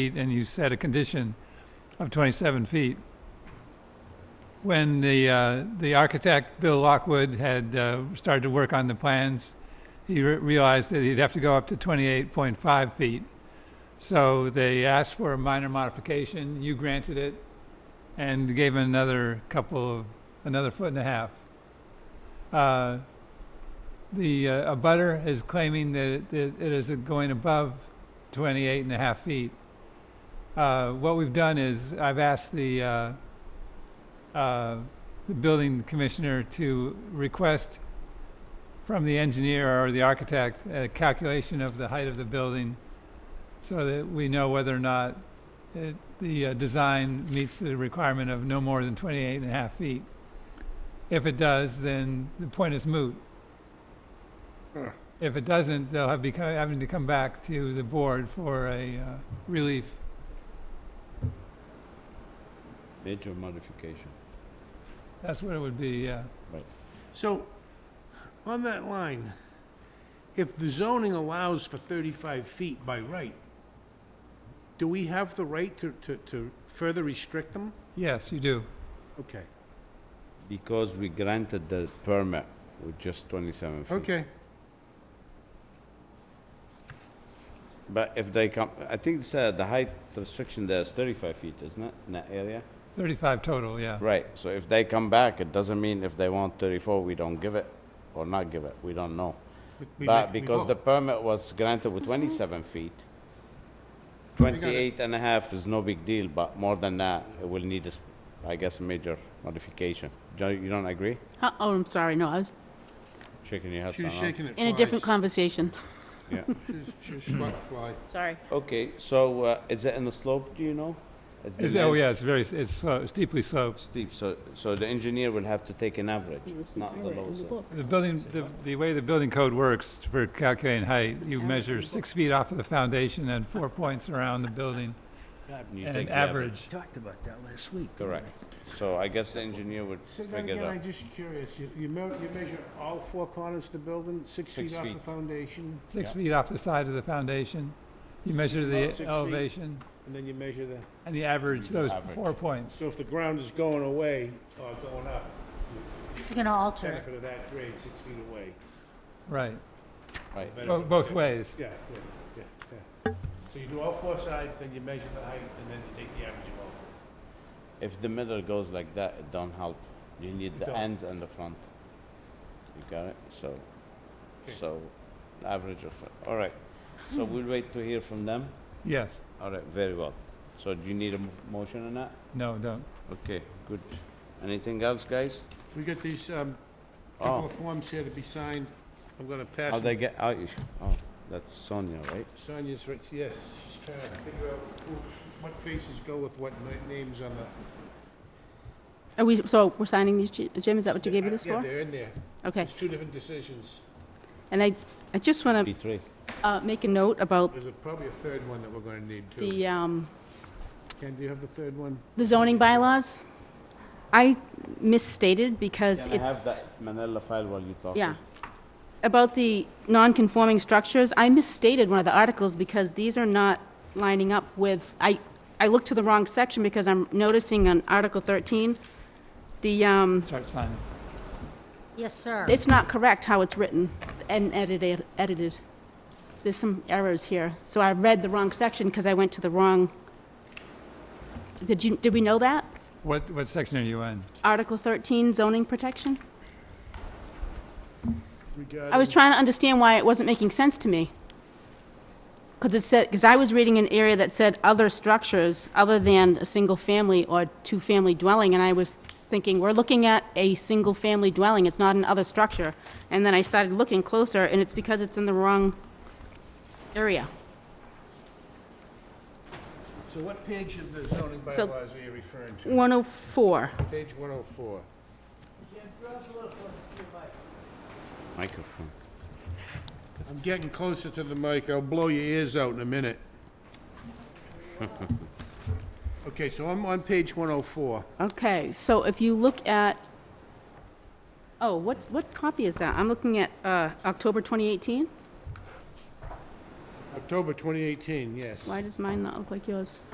feet and you set a condition of 27 feet. When the, uh, the architect, Bill Lockwood, had uh, started to work on the plans, he re- realized that he'd have to go up to 28.5 feet. So they asked for a minor modification, you granted it, and gave him another couple of, another foot and a half. Uh, The uh, abutter is claiming that it- that it is going above 28 and a half feet. Uh, What we've done is, I've asked the, uh, uh, the building commissioner to request from the engineer or the architect a calculation of the height of the building so that we know whether or not it- the uh, design meets the requirement of no more than 28 and a half feet. If it does, then the point is moot. Huh. If it doesn't, they'll have become, having to come back to the board for a uh, relief. Major modification. That's what it would be, yeah. So, on that line, if the zoning allows for 35 feet by right, do we have the right to, to, to further restrict them? Yes, you do. Okay, Because we granted the permit with just 27 feet. okay. But if they come, I think it's, uh, the height restriction there is 35 feet, isn't it, in that area? 35 total, yeah. Right, so if they come back, it doesn't mean if they want 34, we don't give it, or not give it, we don't know. We- we But make- we because the vote. permit was granted with 27 feet, 28 and a half is no big deal, but more than that, it will need, a s- I guess, a major modification. Do You you don't agree? Huh, Oh, I'm sorry, no, I was Shaking your head. She was no, no. shaking it in a different conversation, Yeah. She was struck fly. sorry. Okay, so uh, is it in the slope, do you know? Is the It's- Oh, land yeah, it's very, it's slo- steeply sloped. Steep, so, so the engineer will have to take an average, not the low slope. The building, the, the way the building code works for calculating height, you Average. measure six feet off of the foundation and four points around the building You and an take the average. Talked about that last week. didn't Correct. So I guess the engineer would Say that figure again, I'm that. just curious. You, you me- you measure all four corners of the building, six Six feet off the feet. foundation, Six Yeah. feet off the side of the foundation. You measure Six the feet. elevation and then you measure the, and the average, those Average. four points. so if the ground is going away or going up, You're gonna alter benefit of that grade, six feet away. Right, Right, Bo- Benefit- both ways. Yeah, yeah, yeah, yeah. So you do all four sides, then you measure the height, and then you take the average of all four. if the middle goes like that, it don't help. You need the don't. end and the front. You got it? So, Okay. Hmm. so average of, it. all right. So we'll wait to hear from them? Yes, All right, very well. So do you need a mo- motion on that? no, don't. Okay, good. Anything else, guys? We got these, um, couple Oh, of forms here to be signed. I'm gonna how pass they them. get, oh, you- oh, that's Sonia, right? Sonia's right, yes, she's trying to figure out who, what faces go with what na- names on the. Are we, so we're signing these, Ji- Jim, is that what you gave me this Yeah, for? they're in there. Okay, There's two different decisions. and I, I just wanna, Betrayed. uh, make a note about There's a- probably a third one that we're gonna need too. the, um, Ken, do you have the third one? the zoning bylaws. I misstated because Can I have it's, that Manila file while you talk? yeah. About the non-conforming structures, I misstated one of the articles because these are not lining up with, I, I looked to the wrong section because I'm noticing on Article thirteen, the, um, Start signing. Yes, sir. It's not correct how it's written and edited, edited. There's some errors here. So I read the wrong section because I went to the wrong, did you, did we know that? What, what section are you in? Article 13 zoning protection? Regarding. I was trying to understand why it wasn't making sense to me. Because it said, because I was reading an area that said other structures other than a single-family or two-family dwelling, and I was thinking, we're looking at a single-family dwelling, it's not an other structure. And then I started looking closer, and it's because it's in the wrong area. So what page of the zoning So- bylaws are you referring to? 104. Page one oh four. Microphone. I'm getting closer to the mic, I'll blow your ears out in a minute. Okay, so I'm on page 104. Okay, so if you look at, oh, what, what copy is that? I'm looking at uh, October 2018? October 2018, yes. Why does mine not look like yours?